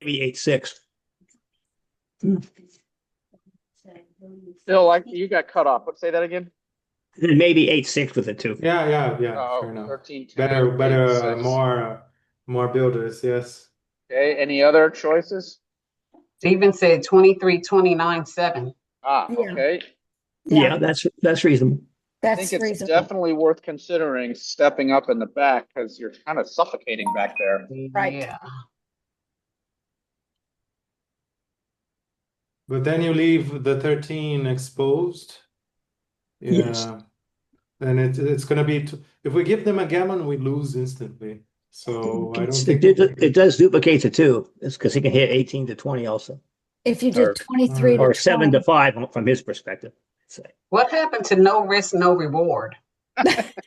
maybe eight, six. Still, like, you got cut off, but say that again? Then maybe eight, six with it too. Yeah, yeah, yeah, Oh, fair enough. 13, 10, Better, better, eight, uh, six. more, more builders, yes. Okay, any other choices? Steven said twenty-three, twenty-nine, seven. Ah, Yeah. okay. Yeah, that's, that's reasonable. I That's think it's reasonable, definitely worth considering stepping up in the back because you're kind of suffocating back there. Right. Yeah. But then you leave the 13 exposed. Yes. Yeah. Then it, it's gonna be, t- if we give them a gammon, we lose instantly. So Oh, I don't It's- It think. did, it does duplicate the two. It's because he can hit eighteen to twenty also, if you did or- twenty-three to or seven to twenty. five from his perspective. Say, What happened to no risk, no reward? Because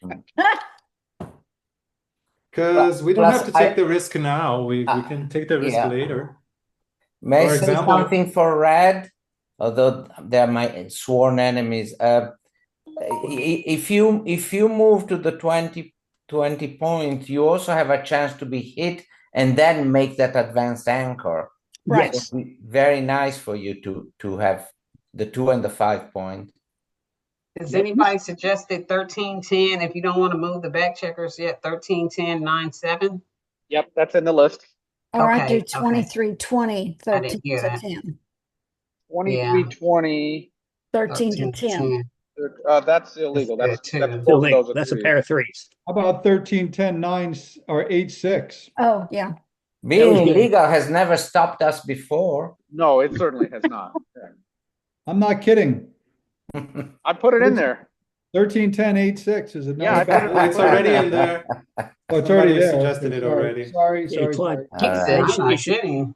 we don't Plus, have to I- take the risk now. We, we Ah, can take the risk yeah. later. May For I say example- something for red? Although they are my sworn enemies. Uh, i- i- if you if you move to the 20, 20 point, you also have a chance to be hit and then make that advanced anchor. Right, It would be Very nice for you to to have the two and the five point. Has anybody suggested thirteen, ten, if you don't want to move the back checkers yet, thirteen, ten, nine, seven? Yep, that's in the list. or I Okay, do okay. twenty-three, twenty, I didn't thirteen hear to that. ten. Twenty-three, twenty, Thirteen to ten. uh, that's illegal. That's, That's good, that's too. both of those are That's a threes. pair of threes. How about thirteen, ten, nine, s- or eight, six? Oh, yeah, Being was good. illegal has never stopped us before. No, it certainly has not. Yeah. I'm not kidding. I put it in there. Thirteen, ten, eight, six is Yeah, I another. bet- It's already in there. Oh, it's already somebody there. suggested Okay, it sorry, already. Sorry, Yeah, sorry, Clyde. sorry. He said, Uh, I'm not kidding.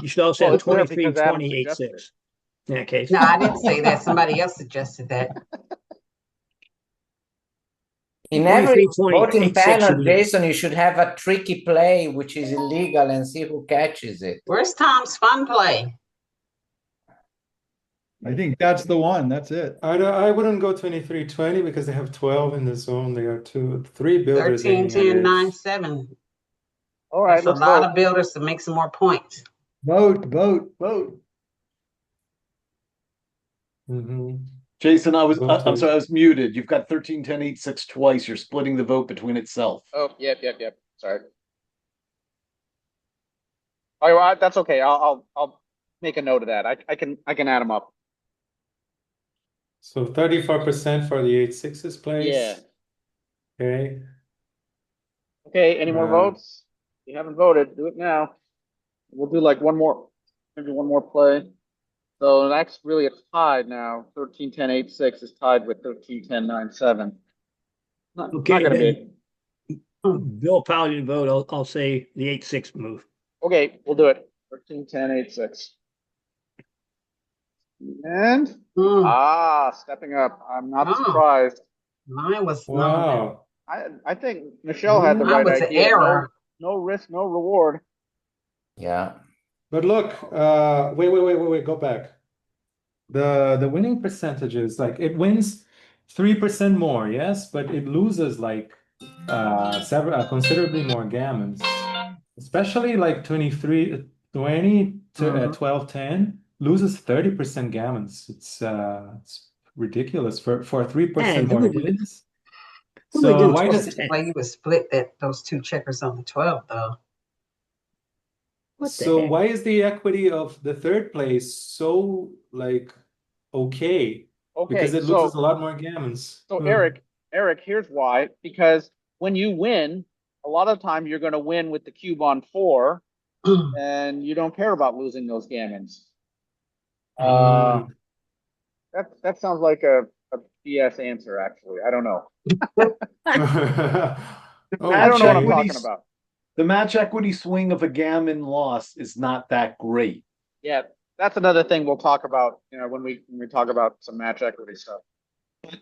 You should also Well, have it's there twenty-three, because Adam twenty, eight, suggested six. In that case, No, I didn't say that. Somebody else suggested that. In every 23, 20, voting 86, panel, you mean. Jason, you should have a tricky play which is illegal and see who catches it. Where's Tom's fun play? I think that's the one. That's it. I don't, I wouldn't go 23 20 because they have 12 in the zone. They are two, three builders Thirteen, aiming at ten, it. nine, seven. All right, That's a let's lot vote. of builders to make some more points. Vote, vote, vote. Mhm. Jason, I was, Vote I- I'm to- sorry, I was muted. You've got thirteen, ten, eight, six twice. You're splitting the vote between itself. Oh, yep, yep, yep. Sorry. Oh, All right, well, I- that's okay. I'll, I'll, I'll make a note of that. I, I can, I can add them up. So 34% for the eight sixes place. Yeah. Okay. Okay, any more Wow. votes? If you haven't voted, do it now. We'll do like one more, maybe one more play. So that's really a tie now. Thirteen, ten, eight, six is tied with thirteen, ten, nine, seven. Not, not Okay, gonna be. then. Bill Powell didn't vote. I'll, I'll say the eight, six move. Okay, we'll do it. Thirteen, ten, eight, six. And, Hmm, ah, stepping up. I'm not Oh. surprised. mine was not. Wow. I, I think Michelle had the Mine right was an idea. No- error. No risk, no reward. Yeah. But look, uh, wait, wait, wait, wait, wait, go back. The the winning percentages, like it wins 3% more, yes, but it loses like uh several uh, considerably more gammons. Especially like 23 20 to uh, Mm-hmm. Mhm. 12 10 loses 30% gammons. It's uh it's ridiculous for for 3% Man, who more would do wins. Who would So do why does 12? Well, you would split that, those two checkers on the twelve though. What the So heck? why is the equity of the third place so like okay? Okay, Because it so- loses a lot more gammons. So Hmm. Eric, Eric, here's why. Because when you win, a lot of time you're going to win with the cube on four, and you don't care about losing those gammons. Uh, Hmm. that that sounds like a, a BS answer. Actually, I don't know. Oh, I don't know what I'm Actually, talking about. The match equity swing of a gammon loss is not that great. Yeah, that's another thing we'll talk about. You know, when we when we talk about some match equity stuff.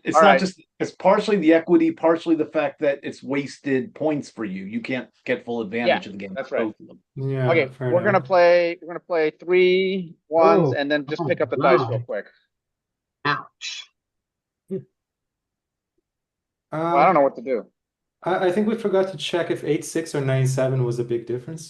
It's All not right. just, it's partially the equity, partially the fact that it's wasted points for you. You can't get full advantage of the game. that's right. Both of them. Yeah, Okay, fair we're gonna enough. play. We're gonna play three ones, Oh, and then just oh, pick up the dice wow. real quick. Ouch. Uh, Well, I don't know what to do. Uh, I, I think we forgot to check if eight six or nine seven was a big difference.